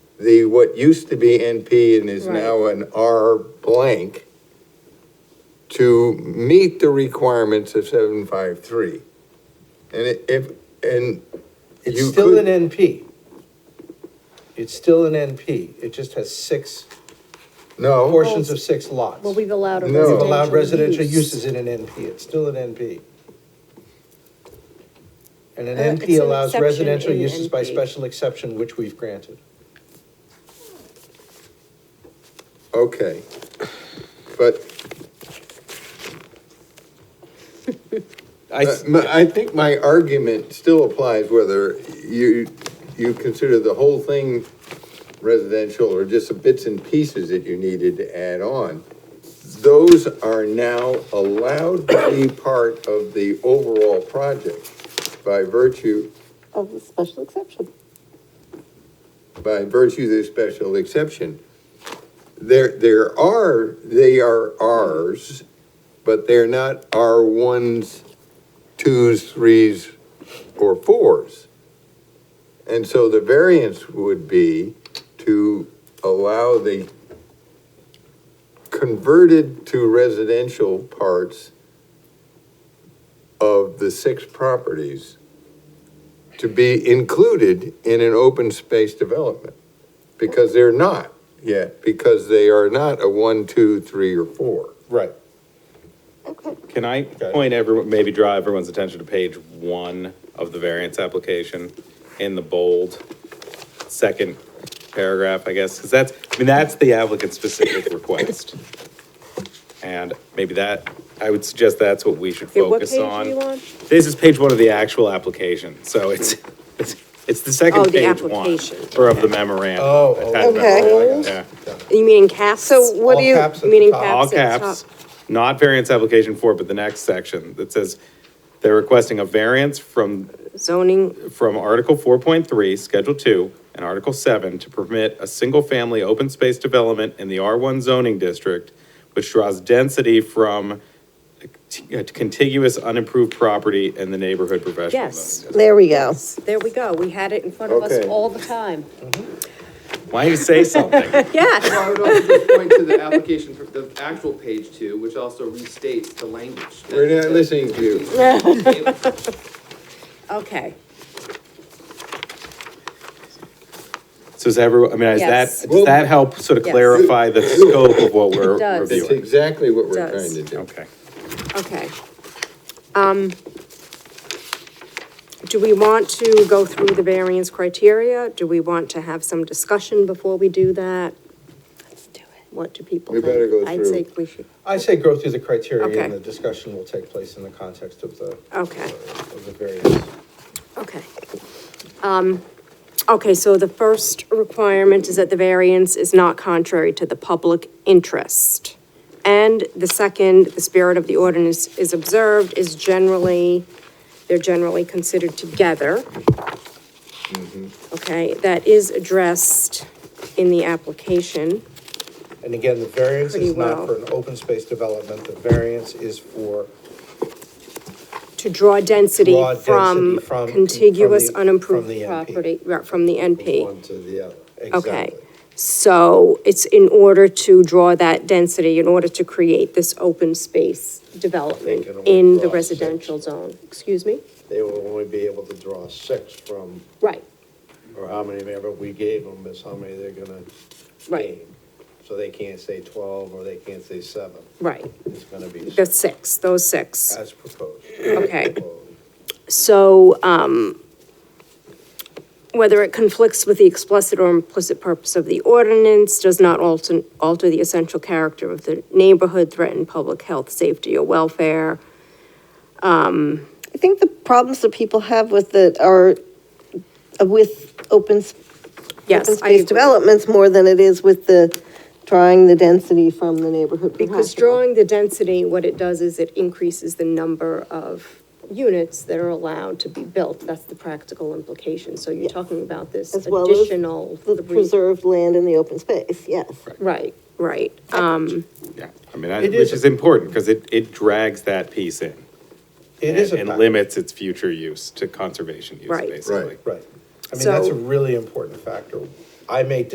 the, what used to be NP and is now an R blank to meet the requirements of seven five three. And it- if, and It's You still could- an NP. It's still an NP. It just has six, no, portions of six lots. Well, we've allowed a Oh. No. We've residential allowed residential use. uses in an NP. It's still an NP. And an Uh, it's NP an allows exception residential in uses by NP. special exception, which we've granted. okay. But I, Uh, my- I think my argument still applies whether you, you consider the whole thing residential or just the bits and pieces that you needed to add on. Those are now allowed to be part of the overall project by virtue, of the special exception. by virtue of the special exception. There, there are, they are Rs, but they're not R ones, twos, threes, or fours. And so the variance would be to allow the converted to residential parts of the six properties to be included in an open space development, because they're not yet, because they are not a one, two, three, or four. Right. Okay. can I Okay. point everyone, maybe draw everyone's attention to page one of the variance application in the bold second paragraph, I guess, because that's, I mean, that's the applicant's specific request. And maybe that, I would suggest that's what we should Okay, what focus page on. are you on? This is page one of the actual application, so it's, it's, it's the Oh, second the page one, application. or of the memorandum. Oh, oh, attached okay. memorandum, yeah. You mean in caps? So what All do you, caps at the meaning top. cap- All Caps at caps, not variance application four, but the next section that says they're requesting a variance from, Zoning, from Article four point three, Schedule two, and Article seven to permit a single-family open space development in the R one zoning district, which draws density from a t- a contiguous unimproved property in the neighborhood professional zoning Yes. district. there we go. there we go, we had it in front of us Okay. all the time. Why don't you say something? Yeah, Well, I would also just point to the application, for the actual page two, which also restates the language. that- We're not listening to you. okay, So is everyone, I mean, is Yes. that, does that help sort of Yes. clarify the scope of what we're It does. That's reviewing? exactly what we're Does. trying to do. Okay. okay. Um, do we want to go through the variance criteria? Do we want to have some discussion before we do that? Let's do it. What do people We think? better go I'd through. say we should, I say go through the criteria Okay. and the discussion will take place in the context of the, okay. of the various. Okay. Um, Okay, so the first requirement is that the variance is not contrary to the public interest. And the second, the spirit of the ordinance is observed, is generally, they're generally considered together. Mm-hmm. Okay, that is addressed in the application. And again, the variance is Pretty not well. for an open space development, the variance is for to draw density Draw density from from- contiguous from the- unimproved from the NP. property, right, from the NP. one to the other. Okay, Exactly. so it's in order to draw that density, in order to create this open space development They can only in the draw residential zone, excuse me? they will only be able to draw six from, Right, or how many ever we gave them is how many they're gonna right, gain. So they can't say twelve, or they can't say seven, right, it's gonna be the six six, those six, As proposed. okay. Well, So, um, whether it conflicts with the explicit or implicit purpose of the ordinance, does not alter, alter the essential character of the neighborhood, threaten public health, safety, or welfare. I think the problems that people have with it are with open, s- open Yes, I space agree. developments more than it is with the drawing the density from the neighborhood. Because professional. drawing the density, what it does is it increases the number of units that are allowed to be built. That's the practical implication. So you're talking about this As well as additional. The three- preserved land in the open space, yes. Right, right. Um, Yeah, I mean, I- It which is- is important, because it, it drags that piece in. It and- is a. And fact. limits its future use to conservation use, Right. Right. basically. Right. I mean, that's So- a really important factor. I make